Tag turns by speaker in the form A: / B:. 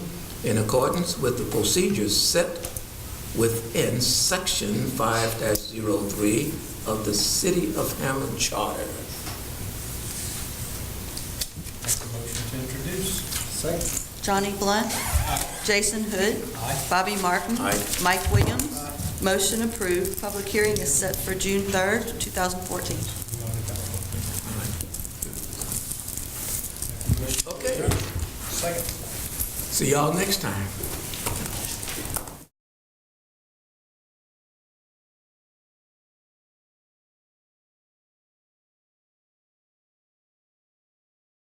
A: in accordance with the procedures set within Section 5-03 of the City of Hammond Charter.
B: Make a motion to introduce. Second.
C: Johnny Blunt. Jason Hood.
B: Aye.
C: Bobby Martin.
A: Aye.
C: Mike Williams. Motion approved. Public hearing is set for June 3rd, 2014.
A: Okay.
B: Second.
A: See y'all next time.